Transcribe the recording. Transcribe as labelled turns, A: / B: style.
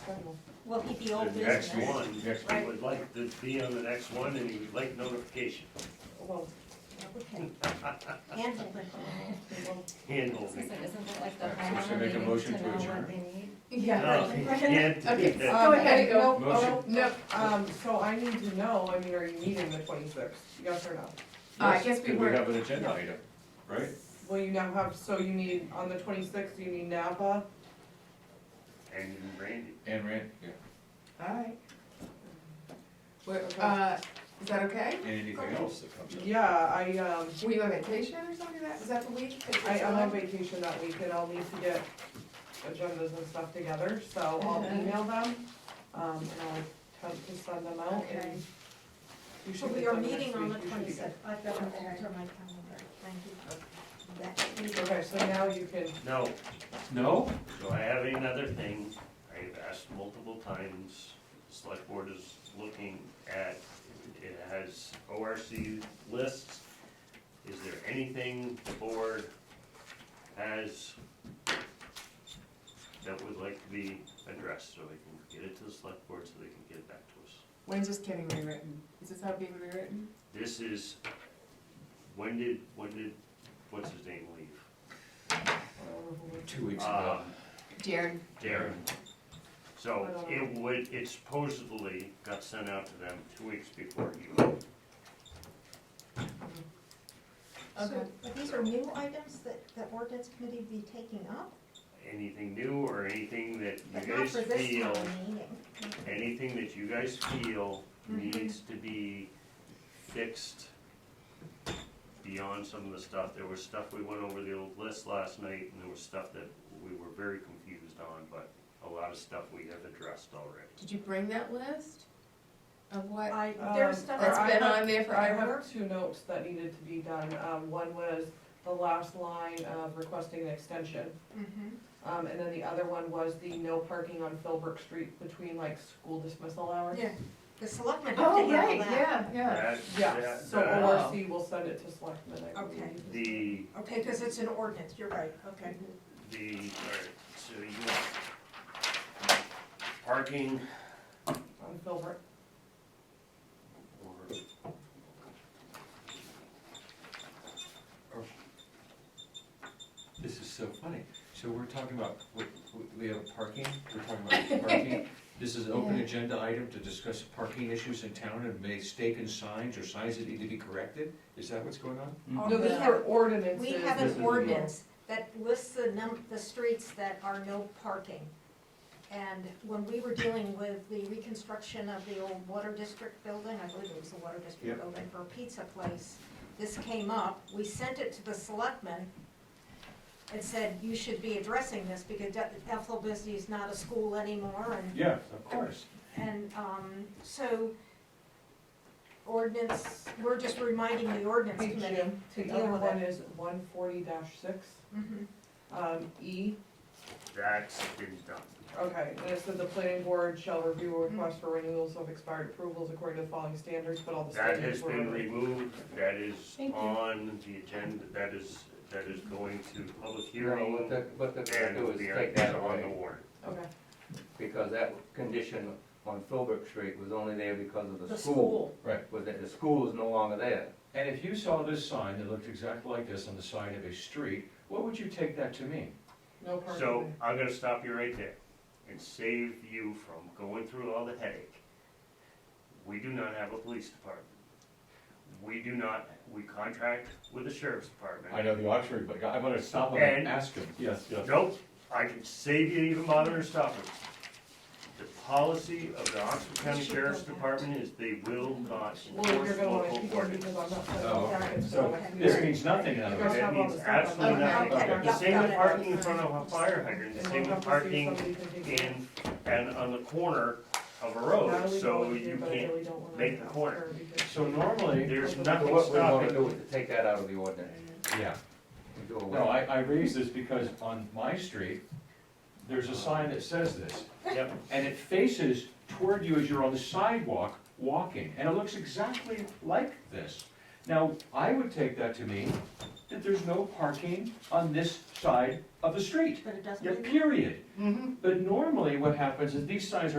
A: external.
B: Will he be old
C: The next
B: business?
C: one, he would like to be on the next one, and he would like notification,
A: Well,
B: Yeah, we can handle it.
A: we won't-
C: handholding.
D: Isn't that like the
E: So should I
D: homeowner
E: make a
D: needing
E: motion
D: to
E: to
D: know what
E: adjourn?
D: they need?
C: No,
A: yeah.
C: he can't do
A: Okay,
C: that.
A: um,
F: ahead, go.
A: no, oh,
F: Motion. Nope.
A: Um, so I need to know, I mean, are you meeting the twenty-sixth, yes or no?
F: Uh, I
E: Yes,
F: guess we
E: and
F: were-
E: We have an agenda item, right?
A: Will you now have, so you need, on the twenty-sixth, you need Napa?
C: And Randy,
E: And Rand, yeah,
F: Alright. We're, uh, is that okay?
E: and anything else that comes up.
A: Yeah, I, um,
F: Were you on vacation or something like that? Was that the week? that you
A: I, I'm on
F: were?
A: vacation that week and I'll need to get agendas and stuff together, so I'll
B: Mm-hmm.
A: email them, um, and I'll attempt to send them out and.
B: Okay.
A: you
B: So
A: should
B: we
A: get
B: are
A: them next
B: meeting on the
A: week, you should be good.
B: twenty-sixth, I've got to alter my calendar, thank you. That meeting.
A: Okay, so now you can,
C: no,
E: No?
C: so I have another thing, I have asked multiple times, select board is looking at, it has ORC lists. Is there anything the board has that would like to be addressed, so we can get it to the select board, so they can get it back to us?
F: When's this getting rewritten? Is this how it's being rewritten?
C: This is, when did, when did, what's his name leave?
E: Two weeks ago.
C: Um,
F: Jared.
C: Darren. So it would, it supposedly got sent out to them two weeks before he left.
B: So, but these are new items that, that ordinance committee be taking up,
C: Anything new or anything that
B: but
C: you
B: not
C: guys
B: for this
C: feel,
B: town meeting.
C: anything that you guys feel
B: Mm-hmm.
C: needs to be fixed beyond some of the stuff. There was stuff, we went over the old list last night and there was stuff that we were very confused on, but a lot of stuff we have addressed already.
F: Did you bring that list of what?
B: I, there's
A: Um,
B: stuff.
A: or I
F: That's been
A: have-
F: on there
A: I
F: forever?
A: have two notes that needed to be done, um, one was the last line of requesting an extension.
B: Mhm.
A: Um, and then the other one was the no parking on Philbrook Street between like school dismissal hours.
B: Yeah. The selectmen have to handle that.
F: Oh, yeah.
C: That-
A: Yeah,
C: that-
A: so
C: that-
A: ORC will send it to selectmen, I believe.
B: Oh. Okay.
C: The,
B: Okay, because it's an ordinance, you're right, okay.
C: the, all right, so you want parking
A: On Philbrook,
C: or,
E: This is so funny. So we're talking about, we, we- we have parking, we're talking about parking. This is an open
F: Yeah.
E: agenda item to discuss parking issues in town and mistaken signs or signs that need to be corrected? Is that what's going on?
A: no, these are ordinances.
B: We have
E: This is
B: an
E: the-
B: ordinance that lists the num, the streets that are no parking. And when we were dealing with the reconstruction of the old Water District building, I believe it was the Water District
E: Yep.
B: building for a pizza place, this came up, we sent it to the selectmen and said, you should be addressing this because Ethel Bisbee is not a school anymore and
E: Yeah, of course.
B: and, um, so ordinance, we're just reminding the ordinance
A: Hey,
B: committee
A: Jim,
B: to
A: The
B: deal
A: other
B: with
A: one
B: it.
A: is one forty six,
B: Mhm.
A: um, E,
C: that's been done.
A: okay, and it said the planning board shall review requests for renewals of expired approvals according to the following standards, but all the
C: That
A: standards were.
C: has been removed, that is
A: Thank you.
C: on the agenda, that is, that is going to public
G: No, what
C: hearing.
G: the, what the,
C: And
G: do
C: will
G: is
C: be
G: take that
C: on the
G: away,
C: warrant.
A: Okay,
G: because that condition on Philbrook Street was only there because of
B: The
G: the school.
B: school.
E: Right.
G: Was that the school is no longer there.
E: And if you saw this sign that looked exactly like this on the side of a street, what would you take that to mean?
A: no parking.
C: So I'm gonna stop you right there and save you from going through all the headache. We do not have a police department. We do not, we contract with the sheriff's department.
E: know the Oxford, but I'm gonna stop
C: him and
E: ask him. Yes, yes.
C: Nope, I can save you even bothering to stop it. The policy of the Oxford County Sheriff's Department is they will not
A: Well,
C: enforce
A: you're gonna wanna
C: local
A: keep it
C: ordinance.
A: because I'm not.
E: Oh,
B: okay.
E: So this means nothing, in other words.
C: That means absolutely
B: Okay,
C: nothing.
B: okay,
C: The same with
B: yeah, got it.
C: parking in front of a fire hydrant, the same with parking in, and on the corner of a road, so you can't. make the corner.
E: So normally,
C: There's
G: So
C: nothing
G: what we wanna do
C: stopping.
G: is to take that out of the ordinance,
E: yeah,
G: and do away.
E: no, I, I raise this because on my street, there's a sign that says this.
C: Yep.
E: And it faces toward you as you're on the sidewalk walking, and it looks exactly like this. Now, I would take that to mean that there's no parking on this side of the street,
B: but it doesn't.
E: yeah,
B: mean-
E: period. But normally what happens is these signs are.